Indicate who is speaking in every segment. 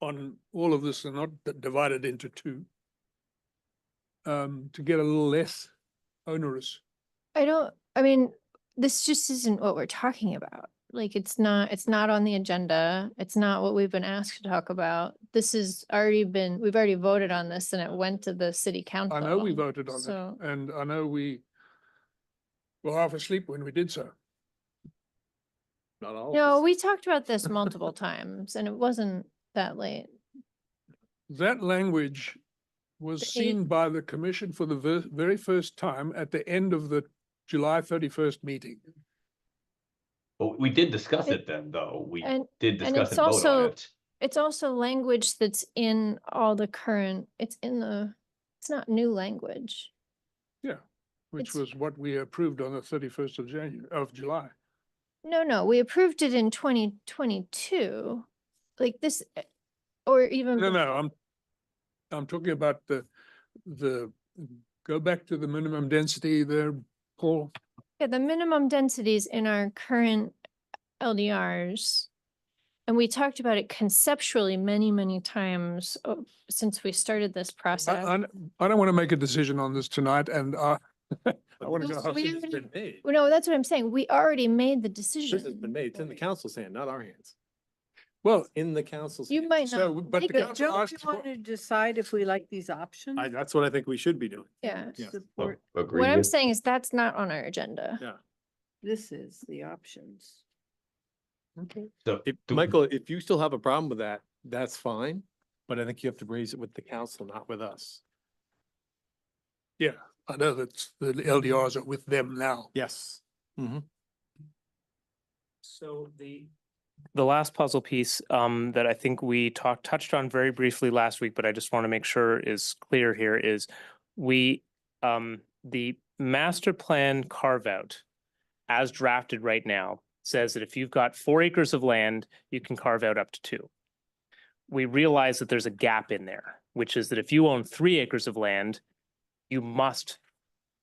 Speaker 1: on all of this and not d- divide it into two. Um, to get a little less onerous.
Speaker 2: I don't, I mean, this just isn't what we're talking about. Like, it's not, it's not on the agenda. It's not what we've been asked to talk about. This has already been, we've already voted on this and it went to the city council.
Speaker 1: I know we voted on
Speaker 2: So,
Speaker 1: it and I know we were half asleep when we did so.
Speaker 3: Not all. of
Speaker 2: no,
Speaker 3: us.
Speaker 2: we talked about this multiple times and it wasn't that late.
Speaker 1: That language was
Speaker 2: The e eight-
Speaker 1: seen by the commission for the ver- very first time at the end of the July thirty-first meeting.
Speaker 3: But we did discuss
Speaker 2: It-
Speaker 3: it then, though. We
Speaker 2: And
Speaker 3: did
Speaker 2: and it's
Speaker 3: discuss and vote on
Speaker 2: also-
Speaker 3: it.
Speaker 2: it's also language that's in all the current, it's in the, it's not new language.
Speaker 1: Which
Speaker 2: It's-
Speaker 1: was what we approved on the thirty-first of January, of July.
Speaker 2: No, no, we approved it in twenty twenty-two, like this, eh, or even.
Speaker 1: No,
Speaker 2: bef-
Speaker 1: no, I'm, I'm talking about the, the, go back to the minimum density there, Paul.
Speaker 2: Yeah, the minimum densities in our current LDRs. And we talked about it conceptually many, many times oh, since we started this
Speaker 1: I,
Speaker 2: process.
Speaker 1: I don't- I don't want to make a decision on this tonight and uh, I, I want to
Speaker 2: No,
Speaker 1: go.
Speaker 2: so
Speaker 1: home.
Speaker 2: we
Speaker 4: Decision's
Speaker 2: already-
Speaker 4: been made.
Speaker 2: Well, No, that's what I'm saying. We already made the
Speaker 4: Decision's been
Speaker 2: decision.
Speaker 4: made. It's in the council's hand, not our hands.
Speaker 1: Well,
Speaker 4: In the council's.
Speaker 2: You
Speaker 4: hand.
Speaker 2: might
Speaker 1: so,
Speaker 2: not,
Speaker 1: but the
Speaker 2: take it.
Speaker 1: council
Speaker 5: Don't you
Speaker 1: asked for-
Speaker 5: want to decide if we like these options?
Speaker 4: I, that's what I think we should be doing.
Speaker 2: yeah.
Speaker 4: Yeah.
Speaker 3: Oh,
Speaker 5: Support,
Speaker 3: Agreed.
Speaker 2: What I'm saying is that's not on our agenda.
Speaker 4: Yeah.
Speaker 5: this is the options.
Speaker 3: So,
Speaker 4: If,
Speaker 3: do-
Speaker 4: Michael, if you still have a problem with that, that's fine, but I think you have to raise it with the council, not with us.
Speaker 1: yeah, I know that the LDRs are with them now.
Speaker 4: Yes.
Speaker 6: So the. The last puzzle piece um that I think we talked touched on very briefly last week, but I just want to make sure is clear here is we um the master plan carve out as drafted right now says that if you've got four acres of land, you can carve out up to two. We realize that there's a gap in there, which is that if you own three acres of land, you must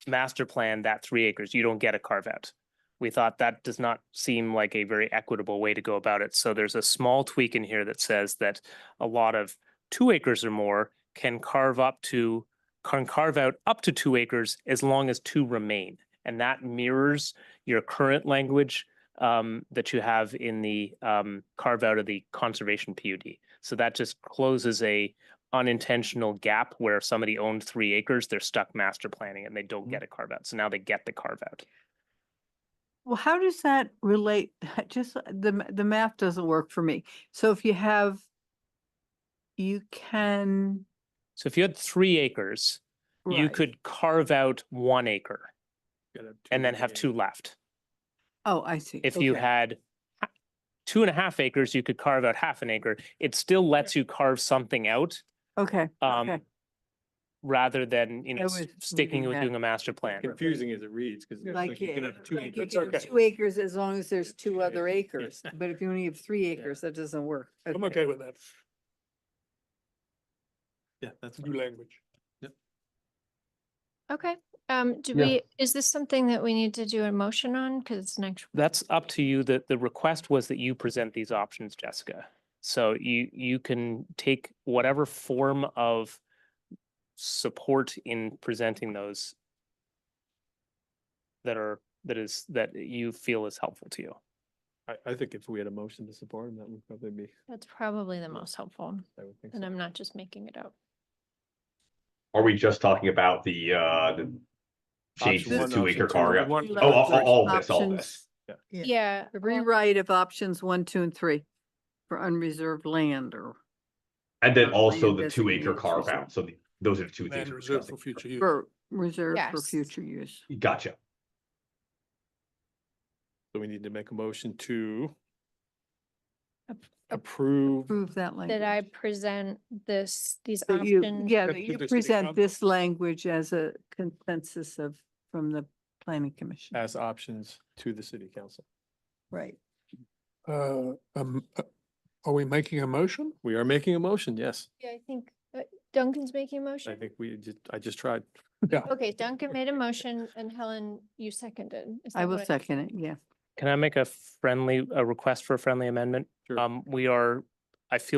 Speaker 6: master plan that three acres. You don't get a carve out we thought that does not seem like a very equitable way to go about it. So there's a small tweak in here that says that a lot of two acres or more can carve up to, can carve out up to two acres as long as two remain. And that mirrors your current language um, that you have in the um, carve out of the conservation PUD. So that just closes a unintentional gap where if somebody owned three acres, they're stuck master planning and they don't get a carve out. So now they get the carve out.
Speaker 5: Well, how does that relate? Just uh, the, ma- the math doesn't work for me. So if you have, you can.
Speaker 6: So if you had three acres, you
Speaker 5: right.
Speaker 6: could carve out one acre
Speaker 4: Gotta have two
Speaker 6: and then
Speaker 4: in
Speaker 6: have
Speaker 4: hand.
Speaker 6: two left.
Speaker 5: Oh, I see.
Speaker 6: If you
Speaker 5: Okay.
Speaker 6: had ha- two and a half acres, you could carve out half an acre. It still lets you carve something out
Speaker 5: Okay,
Speaker 6: um,
Speaker 5: okay.
Speaker 6: rather than, you
Speaker 5: I
Speaker 6: know, s-
Speaker 5: was
Speaker 6: sticking
Speaker 5: reading
Speaker 6: with
Speaker 5: that.
Speaker 6: doing a master plan.
Speaker 4: Confusing as it reads, because.
Speaker 5: Like,
Speaker 4: you can
Speaker 5: yeah,
Speaker 4: have two
Speaker 5: like you
Speaker 4: acres.
Speaker 5: can have
Speaker 4: Okay.
Speaker 5: two acres as long as there's two other acres,
Speaker 4: Yes.
Speaker 5: but if you only have three
Speaker 4: Yeah.
Speaker 5: acres, that doesn't work.
Speaker 1: I'm okay with that
Speaker 4: Yeah, that's.
Speaker 1: new language.
Speaker 2: Okay, um, do
Speaker 4: Yeah.
Speaker 2: we, is this something that we need to do a motion on? Cause it's next.
Speaker 6: That's up to you. The, the request was that you present these options, Jessica. So you, you can take whatever form of support in presenting those that are, that is, that you feel is helpful to you.
Speaker 4: I, I think if we had a motion to support him, that would probably be,
Speaker 2: That's probably the most helpful,
Speaker 4: I would think
Speaker 2: and
Speaker 4: so.
Speaker 2: I'm not just making it up.
Speaker 3: Are we just talking about the, uh, the change
Speaker 4: Option
Speaker 3: to the
Speaker 4: one,
Speaker 3: two acre
Speaker 4: option two,
Speaker 3: carve out?
Speaker 4: one-
Speaker 5: You
Speaker 3: Oh,
Speaker 5: love
Speaker 3: all, all- all of
Speaker 5: first
Speaker 3: this, all of
Speaker 5: options.
Speaker 3: this.
Speaker 5: Yeah.
Speaker 2: Yeah.
Speaker 5: A
Speaker 2: well-
Speaker 5: Rewrite of options one, two, and three for unreserved land or
Speaker 3: And then
Speaker 5: Land
Speaker 3: also the two
Speaker 5: designation
Speaker 3: acre
Speaker 5: or
Speaker 3: carve out. So the- those are the two things.
Speaker 1: Land
Speaker 3: we're
Speaker 1: reserved for
Speaker 3: discussing.
Speaker 1: future use.
Speaker 5: for reserved for
Speaker 2: Yes.
Speaker 5: future use.
Speaker 3: Gotcha.
Speaker 4: So we need to make a motion to
Speaker 2: Ap- ap-
Speaker 4: approve.
Speaker 5: Prove that language.
Speaker 2: That I present this, these
Speaker 5: So you-
Speaker 2: options.
Speaker 5: Yeah,
Speaker 1: That to
Speaker 5: that you
Speaker 1: the city
Speaker 5: present
Speaker 1: council.
Speaker 5: this language as a consensus of, from the planning commission.
Speaker 4: as options to the city council.
Speaker 5: Right.
Speaker 1: Uh, um, uh, are we making a motion?
Speaker 4: We are making a motion, yes.
Speaker 2: Yeah, I think uh, Duncan's making a
Speaker 4: I
Speaker 2: motion.
Speaker 4: think we just, I just tried.
Speaker 2: Okay, Duncan made a motion and Helen, you seconded. Is
Speaker 5: I
Speaker 2: that
Speaker 5: will
Speaker 2: what it-
Speaker 5: second it, yeah.
Speaker 6: Can I make a friendly, a request for a friendly amendment?
Speaker 4: Sure.
Speaker 6: Um, we are, I feel